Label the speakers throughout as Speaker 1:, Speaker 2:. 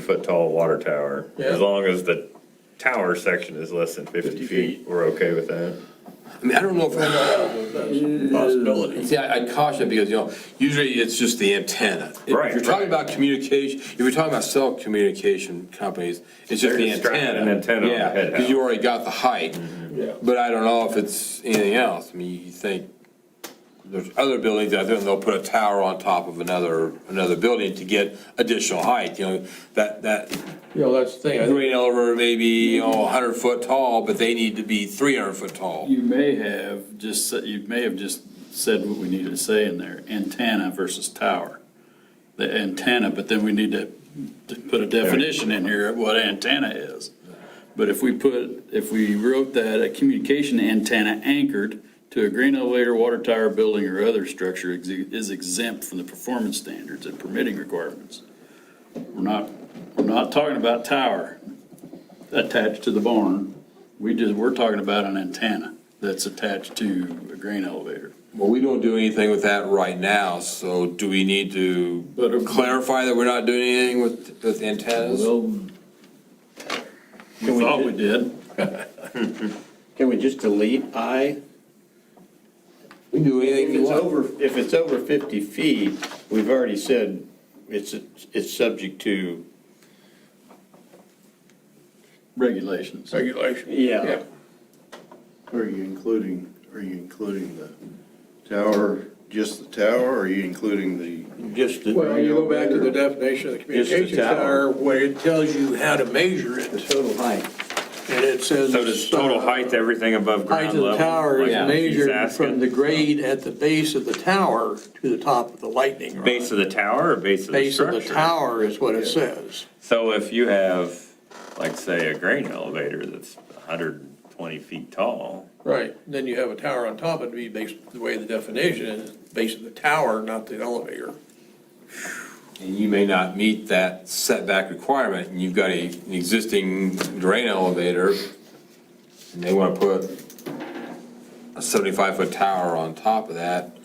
Speaker 1: foot tall water tower.
Speaker 2: Yeah.
Speaker 1: As long as the tower section is less than fifty
Speaker 2: 50
Speaker 1: feet,
Speaker 2: feet.
Speaker 1: we're okay with that.
Speaker 3: I mean, I don't know if
Speaker 2: That's a Possibility.
Speaker 3: See, I I caution because, you know, usually it's just the antenna. If
Speaker 1: Right,
Speaker 3: you're talking
Speaker 1: right.
Speaker 3: about communication, if you're talking about cell communication companies, it's just
Speaker 1: They're
Speaker 3: the
Speaker 1: just strapping
Speaker 3: antenna.
Speaker 1: an antenna on the
Speaker 3: Yeah,
Speaker 1: head
Speaker 3: because you
Speaker 1: now.
Speaker 3: already got the height.
Speaker 2: Yeah.
Speaker 3: But I don't know if it's anything else. I mean, you think there's other buildings out there and they'll put a tower on top of another, another building to get additional height, you know, that, that
Speaker 2: You know, that's the thing. I think
Speaker 3: green elevator may be, you know, hundred foot tall, but they need to be three hundred foot tall.
Speaker 4: You may have just, said- you may have just said what we needed to say in there, antenna versus tower. The antenna, but then we need to, to put a definition in here of what antenna is. But if we put, if we wrote that a communication antenna anchored to a green elevator, water tower, building, or other structure exe- is exempt from the performance standards and permitting requirements. We're not, we're not talking about tower attached to the barn. We just, we're talking about an antenna that's attached to a grain elevator.
Speaker 3: Well, we don't do anything with that right now, so do we need
Speaker 4: But
Speaker 3: to
Speaker 4: if-
Speaker 3: clarify that we're not doing anything with, with antennas?
Speaker 4: Well, we thought we did.
Speaker 5: Can we just delete I?
Speaker 3: We can do
Speaker 5: If
Speaker 3: anything you
Speaker 5: it's
Speaker 3: want.
Speaker 5: over, if it's over 50 feet, we've already said it's, it's subject to,
Speaker 4: Regulations.
Speaker 2: Regulation.
Speaker 5: yeah.
Speaker 6: Are you including, are you including the tower, just the tower, or are you including the?
Speaker 5: Just, the-
Speaker 2: Well, you go back to the definition of the
Speaker 5: Just the
Speaker 2: communication
Speaker 5: tower.
Speaker 2: tower, where it tells you how to measure it,
Speaker 5: the total height.
Speaker 2: and it says.
Speaker 1: So does total
Speaker 2: uh,
Speaker 1: height, everything above
Speaker 2: Height
Speaker 1: ground
Speaker 2: of the
Speaker 1: level?
Speaker 2: tower
Speaker 1: like
Speaker 2: is
Speaker 1: he's
Speaker 2: measured from
Speaker 1: asking?
Speaker 2: the grade at the base of the tower to the top of the lightning rod.
Speaker 1: Base of the tower or base of the
Speaker 2: Base of
Speaker 1: structure?
Speaker 2: the tower is what it says.
Speaker 1: So if you have, like, say, a grain elevator that's hundred and twenty feet tall,
Speaker 2: Right. Then you have a tower on top, it'd be based, the way the definition is, base of the tower, not the elevator.
Speaker 3: And you may not meet that setback requirement, and you've got a, an existing drain elevator, and they wanna put a seventy-five foot tower on top of that.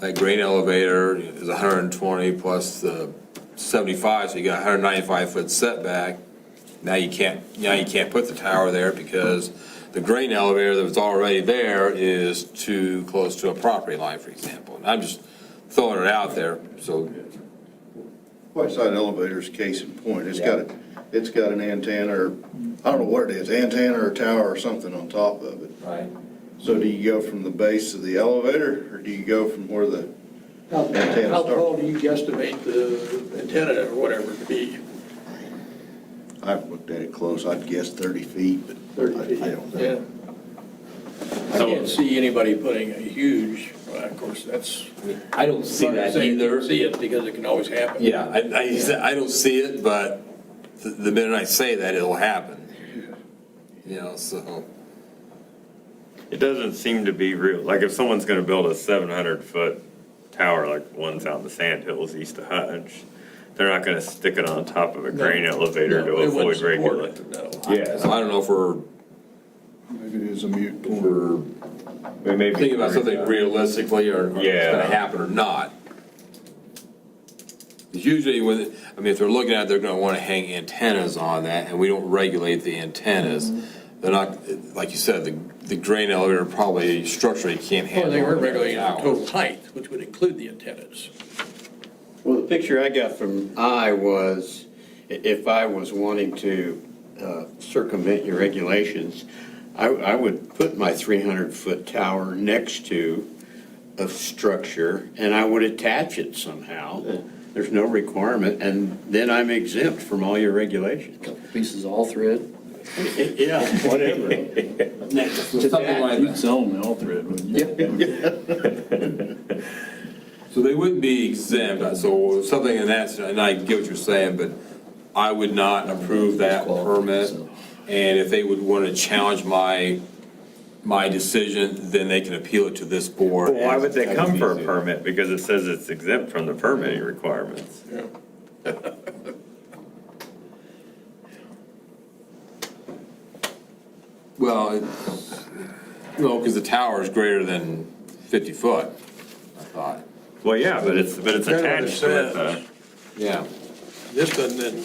Speaker 3: That grain elevator is hundred and twenty plus the seventy-five, so you got a hundred and ninety-five foot setback. Now you can't, now you can't put the tower there because the grain elevator that was already there is too close to a property line, for example. And I'm just throwing it out there, so
Speaker 6: Whiteside elevator's case in point, it's got, a- it's got an antenna, or, I don't know what it is, antenna or tower or something on top of it.
Speaker 3: Right.
Speaker 6: So do you go from the base of the elevator, or do you go from where the,
Speaker 2: How
Speaker 6: Antenna
Speaker 2: how
Speaker 6: start.
Speaker 2: tall do you guesstimate the antenna or whatever to be?
Speaker 6: I haven't looked at it close, I'd guess thirty feet, but I I
Speaker 2: 30 feet?
Speaker 6: don't
Speaker 2: Yeah.
Speaker 6: know.
Speaker 2: I can't see anybody putting a huge, well, of course, that's.
Speaker 3: I don't see that either.
Speaker 2: See it because it can always happen.
Speaker 3: Yeah, I, I, I don't see it, but the- the minute I say that, it'll happen. You know, so,
Speaker 1: it doesn't seem to be real. Like, if someone's gonna build a seven hundred foot tower, like ones out in the sand hills east of Hutch, they're not gonna stick it on top of a grain elevator to
Speaker 2: No, it wouldn't
Speaker 1: avoid
Speaker 2: support
Speaker 1: regulations.
Speaker 2: it, no.
Speaker 3: so I don't know if we're
Speaker 6: Maybe it is a mute point.
Speaker 3: we're
Speaker 1: We may be
Speaker 3: thinking about
Speaker 1: worried
Speaker 3: something realistically or or it's
Speaker 1: Yeah.
Speaker 3: gonna happen or not. 'Cause Usually when, I mean, if they're looking at it, they're gonna wanna hang antennas on that, and we don't regulate the antennas.
Speaker 2: Mm-hmm.
Speaker 3: They're not, like you said, the, the grain elevator probably structurally can't
Speaker 2: Well,
Speaker 3: handle.
Speaker 2: they were
Speaker 3: it.
Speaker 2: regulating the total height, which would include the antennas.
Speaker 5: Well, the picture I got from I was, i- if I was wanting to uh, circumvent your regulations, I, I would put my 300-foot tower next to a structure, and I would attach it somehow. There's no requirement, and then I'm exempt from all your regulations.
Speaker 4: Pieces all thread.
Speaker 5: Yeah, whatever. Next to
Speaker 3: Something
Speaker 5: that.
Speaker 3: like
Speaker 4: You'd sell them all thread, wouldn't you?
Speaker 3: So they wouldn't be exempt, so something in that, and I get what you're saying, but I would not approve that permit. And if they would want to challenge my, my decision, then they can appeal it to this board.
Speaker 1: Well, why would they come for a permit? Because it says it's exempt from the permitting requirements.
Speaker 3: Well, it's- no, because the tower is greater than 50 foot, I thought.
Speaker 1: Well, yeah, but it's, but it's
Speaker 2: That's what it
Speaker 1: attached to it,
Speaker 2: says.
Speaker 1: though.
Speaker 3: Yeah.
Speaker 2: This doesn't,